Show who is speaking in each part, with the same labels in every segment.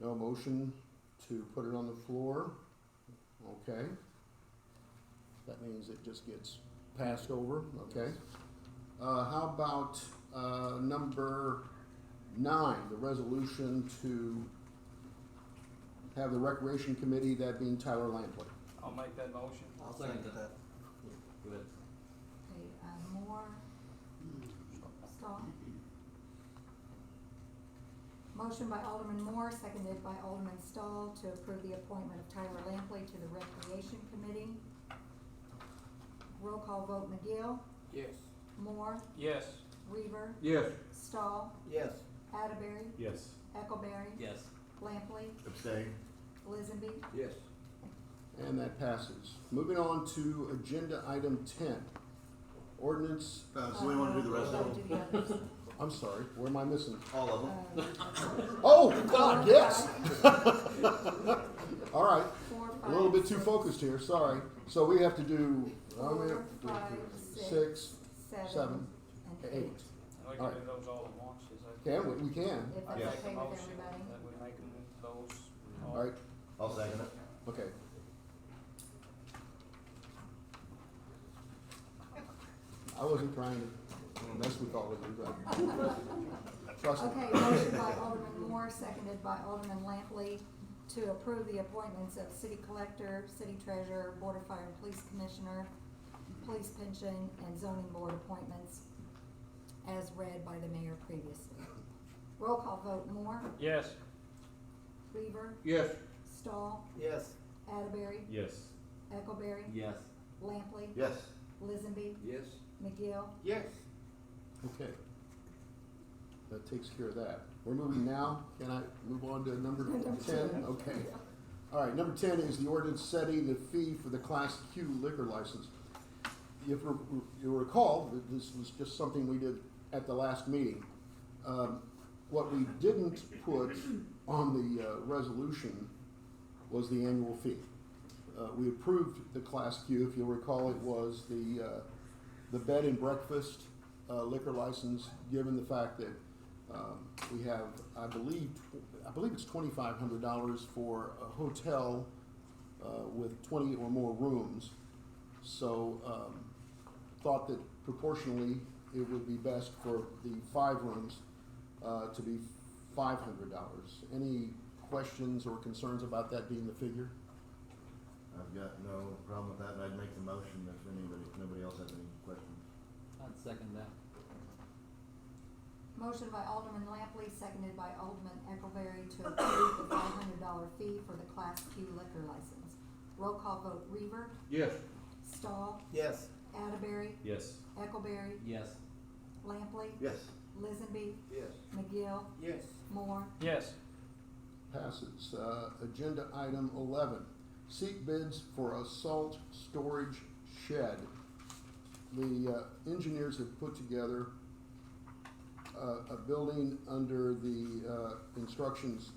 Speaker 1: No motion to put it on the floor? Okay. That means it just gets passed over, okay? Uh, how about, uh, number nine, the resolution to have the recreation committee, that being Tyler Lampley?
Speaker 2: I'll make that motion.
Speaker 3: I'll second that.
Speaker 4: Go ahead.
Speaker 5: Okay, uh, Moore. Stahl. Motion by Alderman Moore, seconded by Alderman Stahl to approve the appointment of Tyler Lampley to the Recreation Committee. Roll call vote McGill,
Speaker 2: Yes.
Speaker 5: Moore,
Speaker 2: Yes.
Speaker 5: Reaver,
Speaker 2: Yes.
Speaker 5: Stahl,
Speaker 3: Yes.
Speaker 5: Atterbury,
Speaker 6: Yes.
Speaker 5: Eckelberry.
Speaker 4: Yes.
Speaker 5: Lampley,
Speaker 6: Abstain.
Speaker 5: Lizenby,
Speaker 2: Yes.
Speaker 1: And that passes. Moving on to agenda item ten. Ordinance,
Speaker 3: Uh, so we wanna do the rest of
Speaker 5: Uh,
Speaker 3: them?
Speaker 5: do the others.
Speaker 1: I'm sorry, where am I missing?
Speaker 3: All of them?
Speaker 5: Uh,
Speaker 1: Oh, God, yes! All right,
Speaker 5: Four, five.
Speaker 1: a little bit too
Speaker 5: six,
Speaker 1: focused here, sorry. So we have to do, I mean,
Speaker 5: Four, five,
Speaker 1: six,
Speaker 5: Seven.
Speaker 1: seven,
Speaker 5: and
Speaker 1: eight.
Speaker 2: We
Speaker 1: All
Speaker 2: can
Speaker 1: right.
Speaker 2: do those all at once, is that?
Speaker 1: Can, we, we can.
Speaker 5: If
Speaker 2: I make
Speaker 5: that's okay
Speaker 2: a
Speaker 5: with
Speaker 2: motion
Speaker 5: everybody.
Speaker 2: that we make them those.
Speaker 1: All right,
Speaker 3: I'll second it.
Speaker 1: okay. I wasn't trying to mess with all of you, but. Trust me.
Speaker 5: Okay, motion by Alderman Moore, seconded by Alderman Lampley to approve the appointments of city collector, city treasurer, board of fire and police commissioner, police pension, and zoning board appointments as read by the mayor previously. Roll call vote, Moore,
Speaker 2: Yes.
Speaker 5: Reaver,
Speaker 2: Yes.
Speaker 5: Stahl,
Speaker 3: Yes.
Speaker 5: Atterbury,
Speaker 6: Yes.
Speaker 5: Eckelberry,
Speaker 4: Yes.
Speaker 5: Lampley,
Speaker 3: Yes.
Speaker 5: Lizenby,
Speaker 2: Yes.
Speaker 5: McGill,
Speaker 2: Yes.
Speaker 1: Okay. That takes care of that. We're moving now. Can I move on to number ten? Okay. All right, number ten is the ordinance setting the fee for the Class Q liquor license. If you you recall, th- this was just something we did at the last meeting. Um, What we didn't put on the uh, resolution was the annual fee. Uh, We approved the Class Q, if you'll recall, it was the, uh, the bed and breakfast uh, liquor license, given the fact that um, we have, I believe, tw- I believe it's twenty-five hundred dollars for a hotel uh, with twenty or more rooms. So um, thought that proportionally, it would be best for the five rooms uh, to be five hundred dollars. Any questions or concerns about that being the figure?
Speaker 3: I've got no problem with that, and I'd make the motion if anybody, nobody else has any questions.
Speaker 4: I'd second that.
Speaker 5: Motion by Alderman Lampley, seconded by Alderman Eckelberry to approve the five hundred dollar fee for the Class Q liquor license. Roll call vote, Reaver,
Speaker 2: Yes.
Speaker 5: Stahl,
Speaker 3: Yes.
Speaker 5: Atterbury,
Speaker 6: Yes.
Speaker 5: Eckelberry,
Speaker 4: Yes.
Speaker 5: Lampley,
Speaker 3: Yes.
Speaker 5: Lizenby,
Speaker 2: Yes.
Speaker 5: McGill,
Speaker 2: Yes.
Speaker 5: Moore,
Speaker 2: Yes.
Speaker 1: Passes. Uh, Agenda item eleven, seek bids for a salt storage shed. The uh, engineers have put together uh, a building under the uh, instructions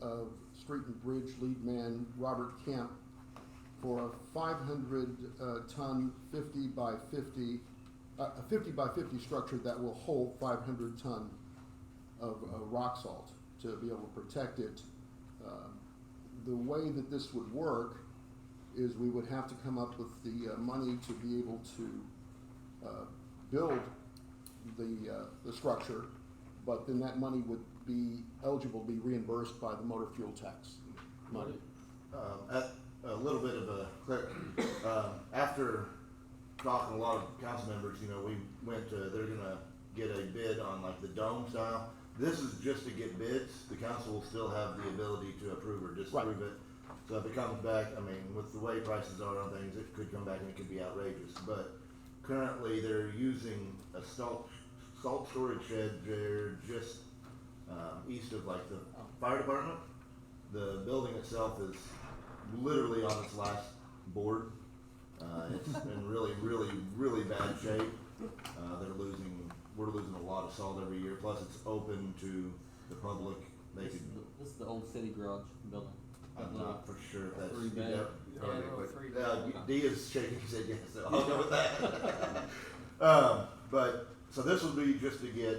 Speaker 1: of street and bridge lead man Robert Kemp for a five hundred uh, ton, fifty by fifty, uh, a fifty by fifty structure that will hold five hundred ton of uh, rock salt to be able to protect it. Um, The way that this would work is we would have to come up with the uh, money to be able to uh, build the, uh, the structure, but then that money would be eligible to be reimbursed by the motor fuel tax money.
Speaker 3: Um, at, a little bit of a clear, um, after talking to a lot of council members, you know, we went to, they're gonna get a bid on like the dome style. This is just to get bids, the council will still have the ability to approve or disapprove it. So if it comes back, I mean, with the way prices are on things, it could come back and it could be outrageous, but currently they're using a salt, salt storage shed, they're just, um, east of like the fire department. The building itself is literally on its last board. Uh, it's in really, really, really bad shape. Uh, they're losing, we're losing a lot of salt every year, plus it's open to the public. They
Speaker 4: This
Speaker 3: could,
Speaker 4: is, the, this is the old city garage building.
Speaker 3: I'm not for sure if that's.
Speaker 4: Three bad.
Speaker 3: yeah,
Speaker 2: Yeah,
Speaker 3: probably,
Speaker 2: little
Speaker 3: but-
Speaker 2: three
Speaker 3: uh,
Speaker 2: bad.
Speaker 3: D is shaking, he said yes, so I'll go with that. Um, but, so this would be just to get